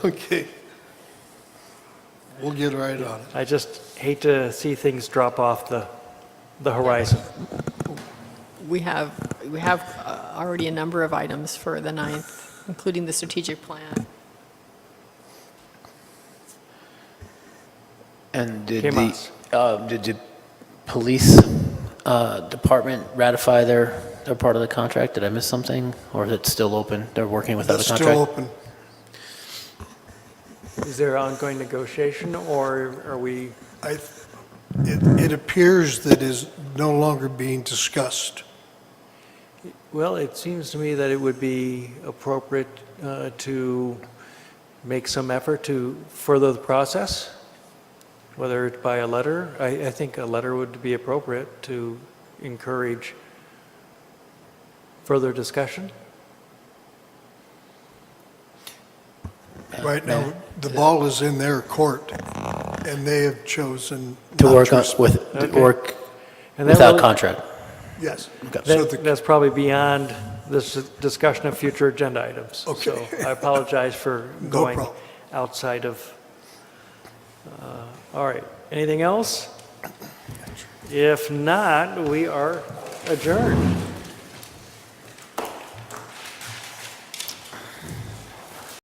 Okay. We'll get right on it. I just hate to see things drop off the, the horizon. We have, we have uh, already a number of items for the 9th, including the strategic plan. And did Came the, us. um, did the police uh, department ratify their, their part of the contract? Did I miss something? Or is it still open? They're working without a It's still contract? open. Is there ongoing negotiation, or are we, I, it, it appears that is no longer being discussed. well, it seems to me that it would be appropriate uh, to make some effort to further the process, whether it's by a letter. I, I think a letter would be appropriate to encourage further discussion. Right now, the ball is in their court, and they have chosen To not work on- respond. with, to Okay. work And that without will- contract? Yes. So That- the, That's probably beyond this discussion of future agenda items. Okay. So I apologize for No going problem. outside of, uh, all right, anything else? If not, we are adjourned.